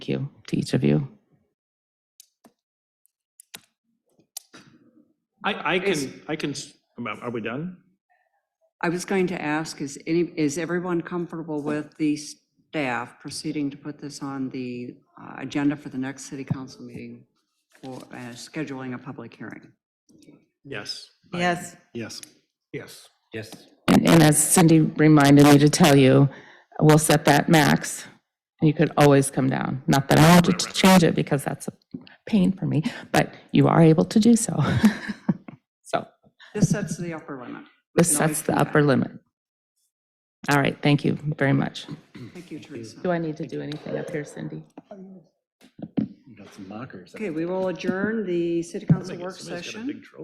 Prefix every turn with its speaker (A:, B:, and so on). A: Thank you to each of you.
B: I, I
C: Is-
B: can, I can, s- are we done?
C: I was going to ask, is any, is everyone comfortable with the staff proceeding to put this on the uh, agenda for the next city council meeting for uh, scheduling a public hearing?
B: Yes. I-
D: Yes.
B: Yes. Yes.
E: Yes.
A: And and as Cindy reminded me to tell you, we'll set that max, and you could always come down. Not that I want you
B: Right, right,
A: to
B: right.
A: change it, because that's a pain for me, but you are able to do so. So
C: This sets the upper limit.
A: this
C: can always
A: sets the
C: come back.
A: upper limit. All right, thank you very much.
C: Thank you, Teresa.
A: Do I need to do anything up here, Cindy?
E: Got some mockers.
C: Okay, we will adjourn the city council work
B: Somebody's got a
C: session.
B: big trophy.